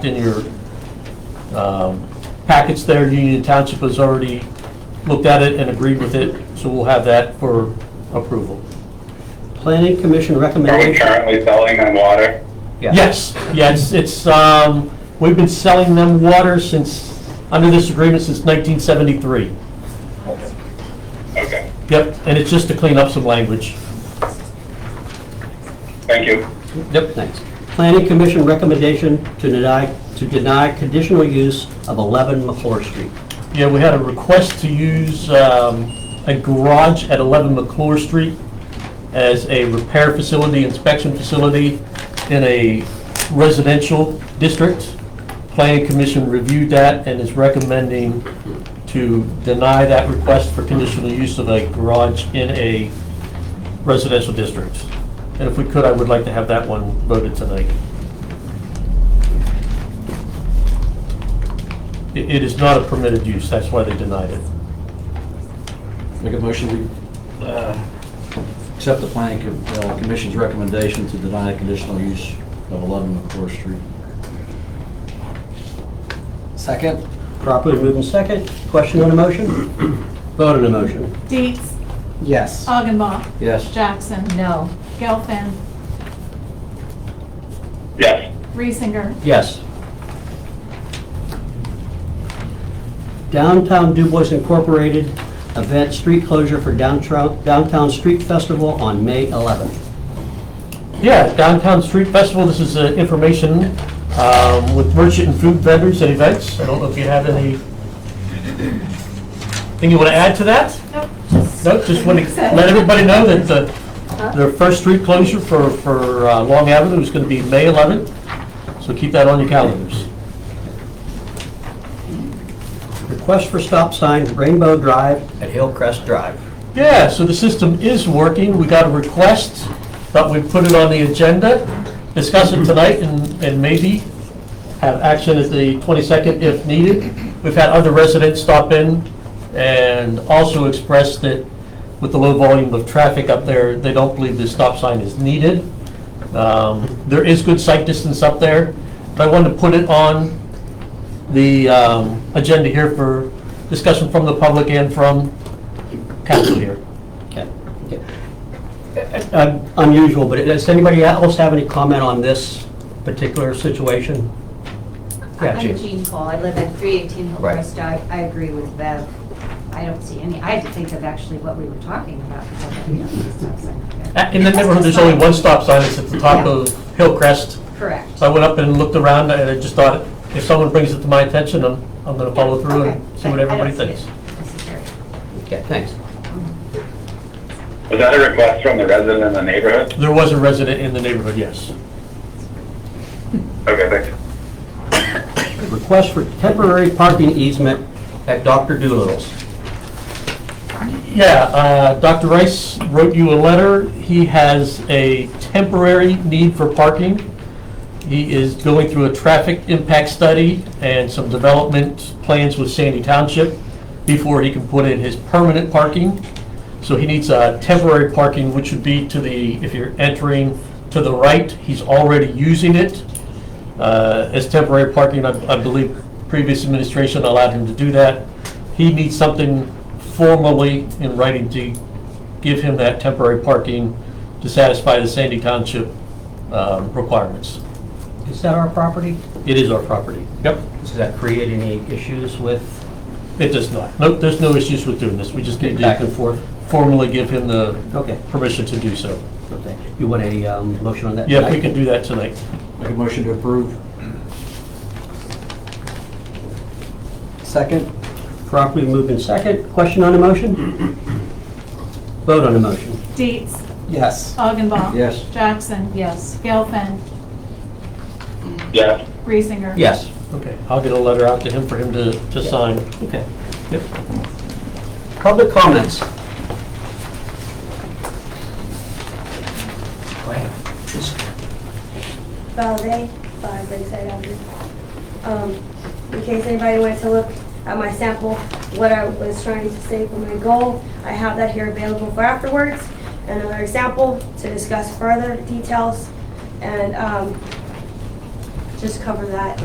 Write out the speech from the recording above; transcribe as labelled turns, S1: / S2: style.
S1: in your um, packets there, Union Township has already looked at it and agreed with it, so we'll have that for approval.
S2: Planning Commission
S3: Are we
S2: recommendation.
S3: currently selling them water?
S1: Yes, yes, it's, um, we've been selling them water since, under this agreement since 1973.
S3: Okay,
S1: Yep, and it's just to clean up some language.
S3: thank you.
S1: Yep.
S2: Thanks. Planning Commission recommendation to deny, to deny conditional use of 11 McClure Street.
S1: Yeah, we had a request to use um, a garage at 11 McClure Street as a repair facility, inspection facility in a residential district. Planning Commission reviewed that and is recommending to deny that request for conditional use of a garage in a residential district. And if we could, I would like to have that one voted tonight. It it is not a permitted use, that's why they denied it.
S4: Make a motion, we uh, accept the planning co- uh, commission's recommendation to deny conditional use of 11 McClure Street. Second?
S2: Properly moved and second. Question on the motion? Vote on the motion.
S5: Dietz,
S4: Yes.
S5: Augenbach,
S4: Yes.
S5: Jackson. No. Gelfen,
S3: Yes,
S5: Reesinger,
S2: Yes. Downtown Dubois Incorporated event street closure for downtown, downtown street festival on May 11th.
S1: Yeah, Downtown Street Festival, this is uh, information um, with merchant and food vendors and events. I don't know if you have any, thing you want to add to that?
S5: nope. just-
S1: No, just want to let everybody know that the, their first street closure for, for uh, Long Avenue is going to be May 11th, so keep that on your calendars.
S2: Request for stop sign Rainbow Drive at Hillcrest Drive.
S1: Yeah, so the system is working. We got a request, but we put it on the agenda, discuss it tonight, and, and maybe have action at the 22nd if needed. We've had other residents stop in and also express that with the low volume of traffic up there, they don't believe the stop sign is needed. Um, There is good sight distance up there, but I wanted to put it on the um, agenda here for discussion from the public and from council here.
S2: Okay. Uh, Unusual, but does anybody else have any comment on this particular situation? Yeah,
S6: I'm
S2: Jean.
S6: Jean Cole, I live at 318
S2: Right.
S6: Hillcrest, I, I agree with Bev. I don't see any, I had to think of actually what we were talking about. because I didn't know this stuff, so-
S1: Uh, In the neighborhood, there's only one stop sign, it's at the top
S6: Yeah.
S1: of Hillcrest.
S6: Correct.
S1: So I went up and looked around, and I just thought, if someone brings it to my attention, I'm, I'm gonna follow through
S6: Okay,
S1: and see
S6: but
S1: what
S6: I don't
S1: everybody
S6: see it
S1: thinks.
S6: necessary.
S2: Okay, thanks.
S3: was that a request from the resident in the neighborhood?
S1: There was a resident in the neighborhood, yes.
S3: Okay, thanks.
S2: Request for temporary parking easement at Dr. Doolittle's.
S1: Yeah, uh, Dr. Rice wrote you a letter. He has a temporary need for parking. He is going through a traffic impact study and some development plans with Sandy Township before he can put in his permanent parking. So he needs a temporary parking, which would be to the, if you're entering to the right, he's already using it uh, as temporary parking. I I believe previous administration allowed him to do that. He needs something formally in writing to give him that temporary parking to satisfy the Sandy Township um, requirements.
S2: Is that our property?
S1: It is our property. Yep.
S2: Does that create any issues with
S1: It does not. Nope, there's no issues with doing this. We just need
S2: back and
S1: to
S2: forth?
S1: formally give him the
S2: Okay,
S1: permission to do so.
S2: okay. You want a um, motion on that?
S1: Yeah, if we can do that tonight.
S4: Make a motion to approve. Second?
S2: Properly moved in second. Question on the motion? Vote on the motion.
S5: Dietz,
S4: Yes.
S5: Augenbach.
S4: Yes.
S5: Jackson. Yes. Gelfen,
S3: Yes,
S5: Reesinger.
S2: Yes.
S1: Okay, I'll get a letter out to him for him to, to sign.
S2: Okay. Yep. Public comments. Go ahead.
S7: Valde, five Lakeside Avenue. Um, In case anybody wants to look at my sample, what I was trying to say for my goal, I have that here available for afterwards. Another example to discuss further details and um, just cover that